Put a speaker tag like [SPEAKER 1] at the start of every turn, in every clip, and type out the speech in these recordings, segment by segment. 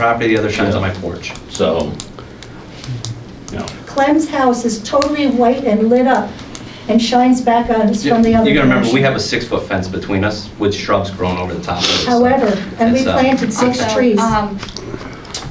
[SPEAKER 1] property, the other shines on my porch, so, you know.
[SPEAKER 2] Clem's house is totally white and lit up and shines back on us
[SPEAKER 1] You
[SPEAKER 2] from the other direction.
[SPEAKER 1] gotta remember, we have a six-foot fence between us with shrubs growing over the top of it. so
[SPEAKER 2] However, and we
[SPEAKER 1] it's, uh,
[SPEAKER 2] planted six
[SPEAKER 3] Also,
[SPEAKER 2] trees.
[SPEAKER 3] um,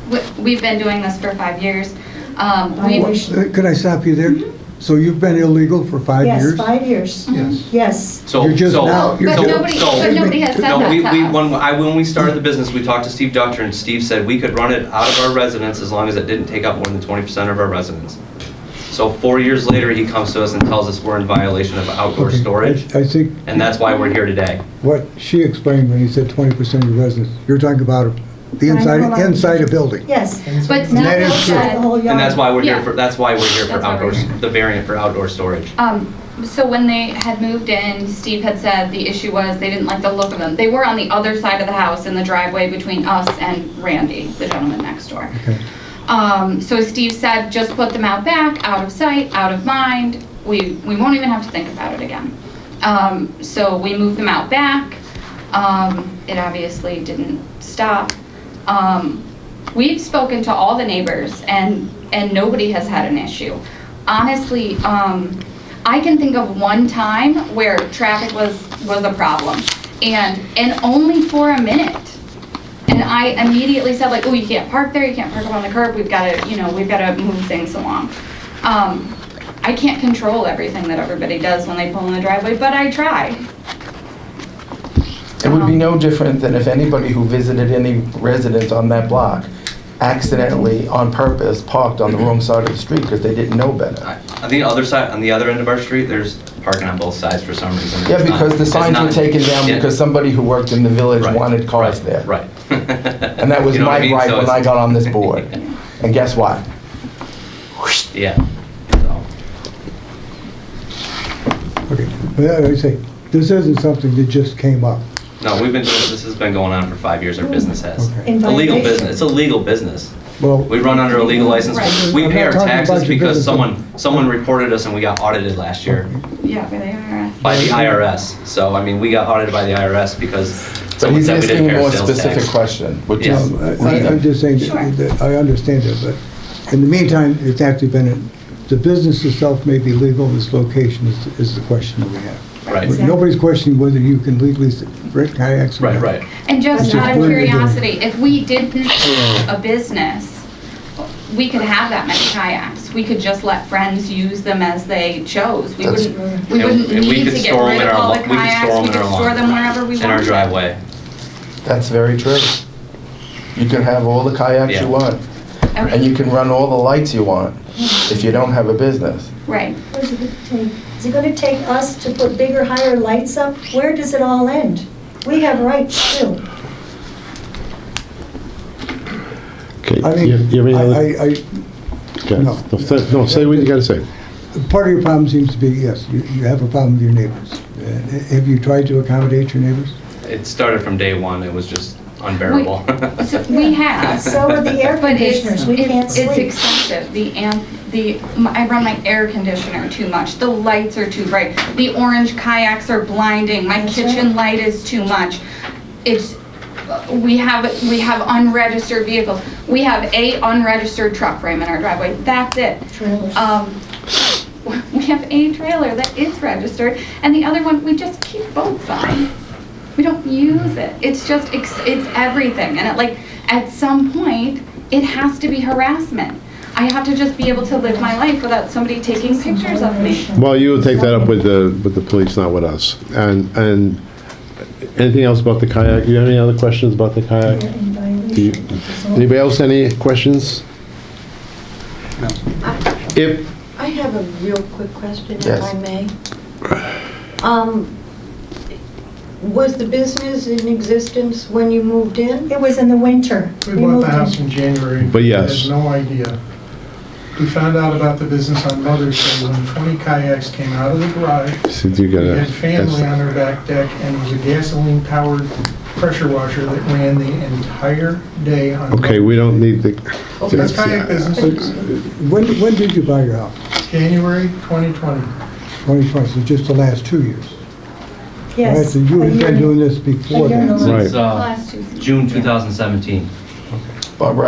[SPEAKER 3] we- We've been doing this for five years. Um,
[SPEAKER 2] I
[SPEAKER 3] we-
[SPEAKER 2] wish-
[SPEAKER 4] Uh, Could I stop you there? So you've been illegal for five
[SPEAKER 2] Mm-hmm. Yes,
[SPEAKER 4] years?
[SPEAKER 2] five Mm-hmm. years.
[SPEAKER 4] Yes.
[SPEAKER 2] Yes.
[SPEAKER 1] So,
[SPEAKER 4] You're just
[SPEAKER 1] so-
[SPEAKER 4] now- you're
[SPEAKER 3] But
[SPEAKER 1] so-
[SPEAKER 4] just-
[SPEAKER 3] nobody,
[SPEAKER 1] Oh, so-
[SPEAKER 3] but nobody has said
[SPEAKER 1] No,
[SPEAKER 3] that
[SPEAKER 1] we, we,
[SPEAKER 3] to us.
[SPEAKER 1] when I, when we started the business, we talked to Steve Doctor, and Steve said we could run it out of our residence as long as it didn't take up more than twenty percent of our residence. So four years later, he comes to us and tells us we're in violation of outdoor
[SPEAKER 4] Okay.
[SPEAKER 1] storage,
[SPEAKER 4] I think
[SPEAKER 1] and that's why we're here today.
[SPEAKER 4] what she explained when you said twenty percent of your residents, you're talking about the
[SPEAKER 2] Nine
[SPEAKER 4] inside,
[SPEAKER 2] eleven.
[SPEAKER 4] inside a building.
[SPEAKER 2] Yes.
[SPEAKER 3] But
[SPEAKER 4] And
[SPEAKER 3] now
[SPEAKER 4] that
[SPEAKER 3] Bill
[SPEAKER 4] is true.
[SPEAKER 2] The
[SPEAKER 3] said,
[SPEAKER 2] whole yard.
[SPEAKER 1] And that's why we're here
[SPEAKER 3] Yeah.
[SPEAKER 1] for, that's why we're here for
[SPEAKER 3] That's why we're
[SPEAKER 1] outdoors,
[SPEAKER 3] here.
[SPEAKER 1] the variant for outdoor storage.
[SPEAKER 3] um, so when they had moved in, Steve had said the issue was they didn't like the look of them. They were on the other side of the house in the driveway between us and Randy, the gentleman next door.
[SPEAKER 4] Okay.
[SPEAKER 3] Um, so Steve said, just put them out back, out of sight, out of mind. We, we won't even have to think about it again. Um, so we moved them out back. Um, it obviously didn't stop. Um, we've spoken to all the neighbors and, and nobody has had an issue. Honestly, um, I can think of one time where traffic was, was a problem and, and only for a minute. And I immediately said like, oh, you can't park there, you can't park up on the curb, we've gotta, you know, we've gotta move things along. Um, I can't control everything that everybody does when they pull in the driveway, but I try.
[SPEAKER 5] It would be no different than if anybody who visited any residence on that block accidentally, on purpose, parked on the wrong side of the street because they didn't know better.
[SPEAKER 1] I- On the other side, on the other end of our street, there's parking on both sides for some reason.
[SPEAKER 5] Yeah,
[SPEAKER 1] It's not-
[SPEAKER 5] because the
[SPEAKER 1] it's
[SPEAKER 5] signs were
[SPEAKER 1] not-
[SPEAKER 5] taken down
[SPEAKER 1] Yeah.
[SPEAKER 5] because somebody who worked in the village
[SPEAKER 1] Right,
[SPEAKER 5] wanted cars
[SPEAKER 1] right,
[SPEAKER 5] there.
[SPEAKER 1] Right.
[SPEAKER 5] And that was
[SPEAKER 1] You know what I
[SPEAKER 5] my
[SPEAKER 1] mean?
[SPEAKER 5] right
[SPEAKER 1] So
[SPEAKER 5] when I
[SPEAKER 1] it's-
[SPEAKER 5] got on this board. And guess what?
[SPEAKER 1] Yeah. So,
[SPEAKER 4] Okay, Well, I say, this isn't something that just came up.
[SPEAKER 1] No, we've been, doing this has been going on for five years, our business has.
[SPEAKER 4] Okay.
[SPEAKER 2] In
[SPEAKER 1] It's a legal
[SPEAKER 2] violation.
[SPEAKER 1] business, it's a legal business.
[SPEAKER 4] Well,
[SPEAKER 1] We run under a legal license,
[SPEAKER 3] Right.
[SPEAKER 1] we pay our
[SPEAKER 4] I'm not talking
[SPEAKER 1] taxes
[SPEAKER 4] about your
[SPEAKER 1] because
[SPEAKER 4] business.
[SPEAKER 1] someone, someone reported us and we got audited last year
[SPEAKER 3] Yeah, by the IRS.
[SPEAKER 1] by the IRS. So, I mean, we got audited by the IRS because
[SPEAKER 5] But
[SPEAKER 1] someone
[SPEAKER 5] he's
[SPEAKER 1] said we
[SPEAKER 5] asking
[SPEAKER 1] didn't
[SPEAKER 5] a
[SPEAKER 1] pay our
[SPEAKER 5] more
[SPEAKER 1] sales
[SPEAKER 5] specific
[SPEAKER 1] tax.
[SPEAKER 5] question, which
[SPEAKER 1] Yeah.
[SPEAKER 5] is
[SPEAKER 4] Um, I- I'm
[SPEAKER 5] legal.
[SPEAKER 4] just saying,
[SPEAKER 3] Sure.
[SPEAKER 4] that that I understand that, but in the meantime, it's actually been, a- the business itself may be legal, this location is, is the question that we have.
[SPEAKER 1] Right,
[SPEAKER 2] Exactly.
[SPEAKER 4] Nobody's questioning whether you can legally rent kayaks. or
[SPEAKER 1] right,
[SPEAKER 4] not.
[SPEAKER 1] right.
[SPEAKER 3] And just
[SPEAKER 4] Just
[SPEAKER 3] out of
[SPEAKER 4] blend it in.
[SPEAKER 3] curiosity, if we didn't own a business, we could have that many kayaks. We could just let friends use them as they chose. We
[SPEAKER 5] That's-
[SPEAKER 3] wouldn't, we
[SPEAKER 1] And-
[SPEAKER 3] wouldn't
[SPEAKER 1] and we
[SPEAKER 3] need
[SPEAKER 1] could
[SPEAKER 3] to get
[SPEAKER 1] store 'em
[SPEAKER 3] rid
[SPEAKER 1] in
[SPEAKER 3] of
[SPEAKER 1] our
[SPEAKER 3] all the
[SPEAKER 1] lo- we could store
[SPEAKER 3] kayaks.
[SPEAKER 1] 'em in our
[SPEAKER 3] We could store
[SPEAKER 1] lawn.
[SPEAKER 3] them wherever we wanted.
[SPEAKER 1] In our driveway.
[SPEAKER 5] That's very true. You can have all the kayaks
[SPEAKER 1] Yeah.
[SPEAKER 5] you want, and you can run all the lights you want if you don't have a business.
[SPEAKER 3] Right.
[SPEAKER 2] What is it gonna take? Is it going to take us to put bigger, higher lights up? Where does it all end? We have rights too.
[SPEAKER 6] Okay,
[SPEAKER 4] I
[SPEAKER 6] you have- you have
[SPEAKER 4] mean,
[SPEAKER 6] any other-
[SPEAKER 4] I, I, I-
[SPEAKER 6] okay.
[SPEAKER 4] no.
[SPEAKER 6] No, th- no, say what you gotta say.
[SPEAKER 4] Part of your problem seems to be, yes, you you have a problem with your neighbors. Uh, Have you tried to accommodate your neighbors?
[SPEAKER 1] It started from day one, it was just unbearable.
[SPEAKER 3] We- so We have.
[SPEAKER 2] So are the air
[SPEAKER 3] But it's,
[SPEAKER 2] conditioners, we can't
[SPEAKER 3] it's it's
[SPEAKER 2] sleep.
[SPEAKER 3] excessive, the amp, the, I run my air conditioner too much, the lights are too bright, the orange kayaks are blinding, my
[SPEAKER 2] That's
[SPEAKER 3] kitchen
[SPEAKER 2] right.
[SPEAKER 3] light is too much. It's, we have, we have unregistered vehicles, we have a unregistered truck frame in our driveway, that's it.
[SPEAKER 2] Trailers.
[SPEAKER 3] Um, we have a trailer that is registered, and the other one, we just keep both on. We don't use it. It's just, it's, it's everything. And it like, at some point, it has to be harassment. I have to just be able to live my life without somebody taking pictures of me.
[SPEAKER 6] Well, you would take that up with the, with the police, not with us. And, and anything else about the kayak? You have any other questions about the
[SPEAKER 2] We're
[SPEAKER 6] kayak?
[SPEAKER 2] in
[SPEAKER 6] Do you-
[SPEAKER 2] violation. It's all-
[SPEAKER 6] Anybody else, any questions? If,
[SPEAKER 7] I have a real quick question, if
[SPEAKER 5] Yes.
[SPEAKER 7] I may. Um, Was the business in existence when you moved in?
[SPEAKER 2] It was in the winter.
[SPEAKER 8] We bought
[SPEAKER 2] moved
[SPEAKER 8] the
[SPEAKER 2] in.
[SPEAKER 8] house in January.
[SPEAKER 6] But yes.
[SPEAKER 8] We had no idea. We found out about the business on Mother's Day when 20 kayaks came out of the garage.
[SPEAKER 6] since you
[SPEAKER 8] We
[SPEAKER 6] gotta.
[SPEAKER 8] had family
[SPEAKER 6] that's-
[SPEAKER 8] on our back deck, and it was a gasoline-powered pressure washer that ran the entire day on.
[SPEAKER 6] Okay, we don't need the.
[SPEAKER 8] Okay, That's kayak business,
[SPEAKER 4] uh, When, when did you buy your house?
[SPEAKER 8] January 2020.
[SPEAKER 4] 2020, so just the last two years?
[SPEAKER 2] Yes.
[SPEAKER 4] So you
[SPEAKER 2] a
[SPEAKER 4] had
[SPEAKER 2] year
[SPEAKER 4] been
[SPEAKER 2] and-
[SPEAKER 4] doing this
[SPEAKER 1] Uh,
[SPEAKER 4] before
[SPEAKER 2] a year and a
[SPEAKER 4] that?
[SPEAKER 2] half.
[SPEAKER 6] Right.
[SPEAKER 1] Since, uh,
[SPEAKER 3] Last two.
[SPEAKER 1] June 2017.
[SPEAKER 5] Barbara,